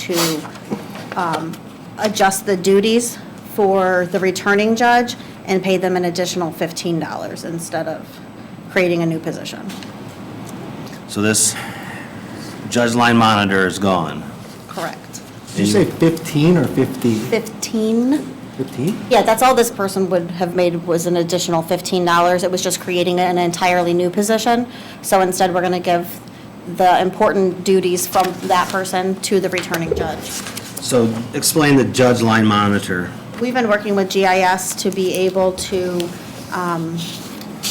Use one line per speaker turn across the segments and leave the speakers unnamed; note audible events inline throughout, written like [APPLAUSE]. to um, adjust the duties for the returning judge and pay them an additional $15 instead of creating a new position.
So this judge line monitor is gone.
Correct.
Did you say 15 or 50?
15?
15?
Yeah, that's all this person would have made was an additional $15. It was just creating an entirely new position. So instead, we're going to give the important duties from that person to the returning judge.
So explain the judge line monitor.
We've been working with GIS to be able to um,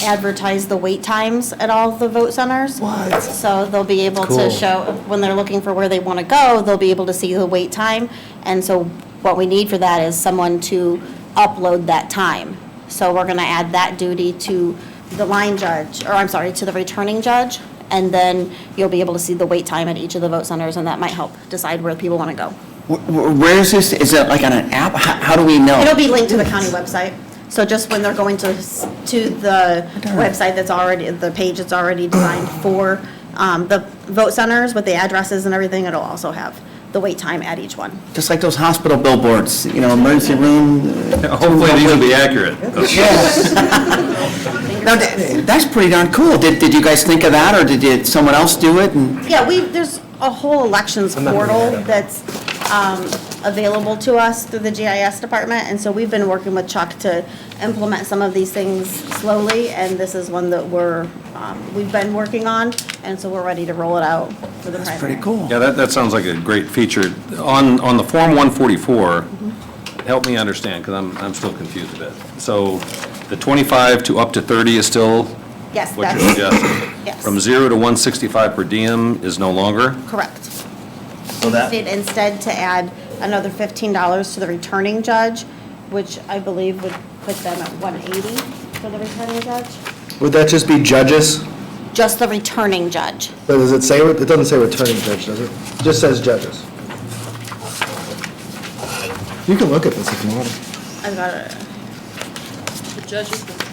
advertise the wait times at all the vote centers.
What?
So they'll be able to
Cool.
show, when they're looking for where they want to go, they'll be able to see the wait time. And so what we need for that is someone to upload that time. So we're going to add that duty to the line judge, or I'm sorry, to the returning judge. And then you'll be able to see the wait time at each of the vote centers, and that might help decide where people want to go.
Wh- wh- Where is this? Is it like on an app? How how do we know?
It'll be linked to the county website. So just when they're going to, s- to the website that's already, the page that's already
[SIGHS]
designed for um, the vote centers with the addresses and everything, it'll also have the wait time at each one.
Just like those hospital billboards, you know, emergency room. uh,
Hopefully, these will be accurate.
[LAUGHS] No, tha- that's pretty darn cool. Did, did you guys think of that, or did it- someone else do it? And
Yeah, we, there's a whole elections portal that's um, available to us through the GIS department. And so we've been working with Chuck to implement some of these things slowly. And this is one that we're, um, we've been working on. And so we're ready to roll it out for the primary.
That's pretty cool.
Yeah, that, that sounds like a great feature. On, on the Form 144, help me understand, because I'm, I'm still confused a bit. So the 25 to up to 30 is still
Yes,
what you're
that's
suggesting?
Yes.
From 0 to 165 per diem is no longer?
correct.
So that,
Did Instead to add another fifteen dollars to the returning judge, which I believe would put them at one eighty for the returning judge.
Would that just be judges?
Just the returning judge.
But Does it say, it doesn't say returning judge, does it? It just says judges. You can look at this if you want.
I've got it.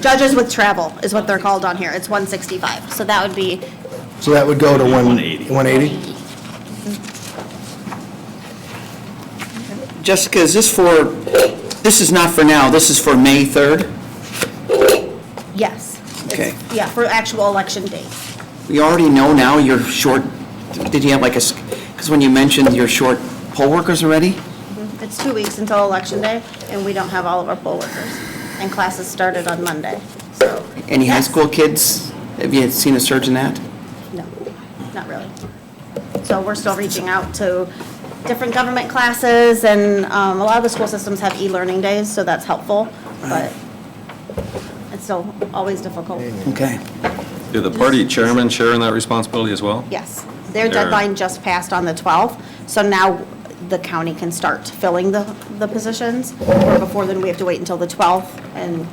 Judges. with travel is what they're called on here. It's one sixty-five. So that would be,
So that would go to one-
180.
180?
Jessica, is this for, this is not for now, this is for May 3rd?
yes. It's-
Okay.
Yeah, for actual election date.
We already know now you're short, did you have like a, because when you mentioned you're short poll workers already?
It's two weeks until election day, and we don't have all of our poll workers. And classes started on Monday, so.
Any high
Yes.
school kids, have you seen a surge in that?
No, not really. So we're still reaching out to different government classes, and um, a lot of the school systems have e-learning days, so that's helpful, but it's still always difficult.
Okay.
Do the party chairmen share in that responsibility as well?
Yes, their
They're-
deadline just passed on the 12th, so now the county can start filling the, the positions, or before then, we have to wait until the 12th, and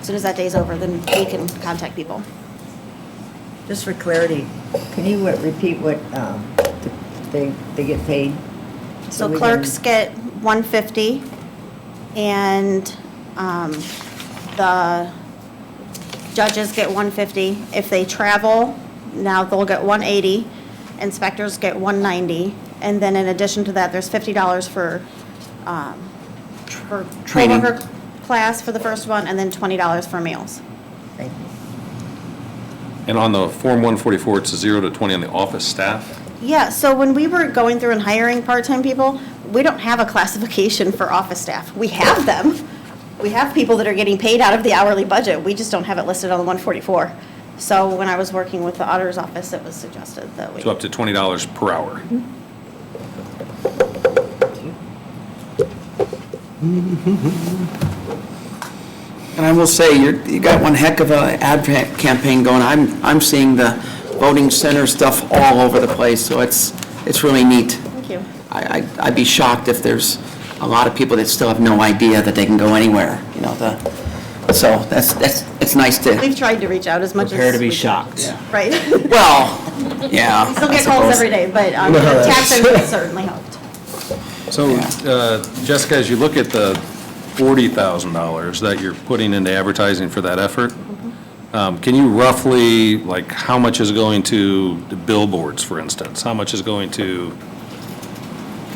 as soon as that day's over, then we can contact people.
Just for clarity, can you uh, repeat what um, th- they, they get paid?
So
we
clerks
can-
get 150, and um, the judges get 150. If they travel, now they'll get 180, inspectors get 190, and then in addition to that, there's $50 for, um, for
Training.
co-worker class for the first one, and then $20 for meals.
Thank you.
And on the Form 144, it's 0 to 20 on the office staff?
Yeah, so when we were going through and hiring part-time people, we don't have a classification for office staff. We have them. We have people that are getting paid out of the hourly budget. We just don't have it listed on the 144. So when I was working with the auditor's office, it was suggested that we,
So up to $20 per hour?
And I will say, you're, you got one heck of a ad pa- campaign going. I'm, I'm seeing the voting center stuff all over the place, so it's, it's really neat.
thank you.
I, I- I'd be shocked if there's a lot of people that still have no idea that they can go anywhere, you know, the, so that's, that's, it's nice to
We've tried to reach out as much as.
prepare to be
we can.
shocked.
[LAUGHS]
Right.
Well, yeah.
Still
I
get calls
suppose.
every day, but um,
No,
the
that's- [LAUGHS]
taxes certainly helped.
So, uh, Jessica, as you look at the $40,000 that you're putting into advertising for that effort, um, can you roughly, like, how much is going to the billboards, for instance? How much is going to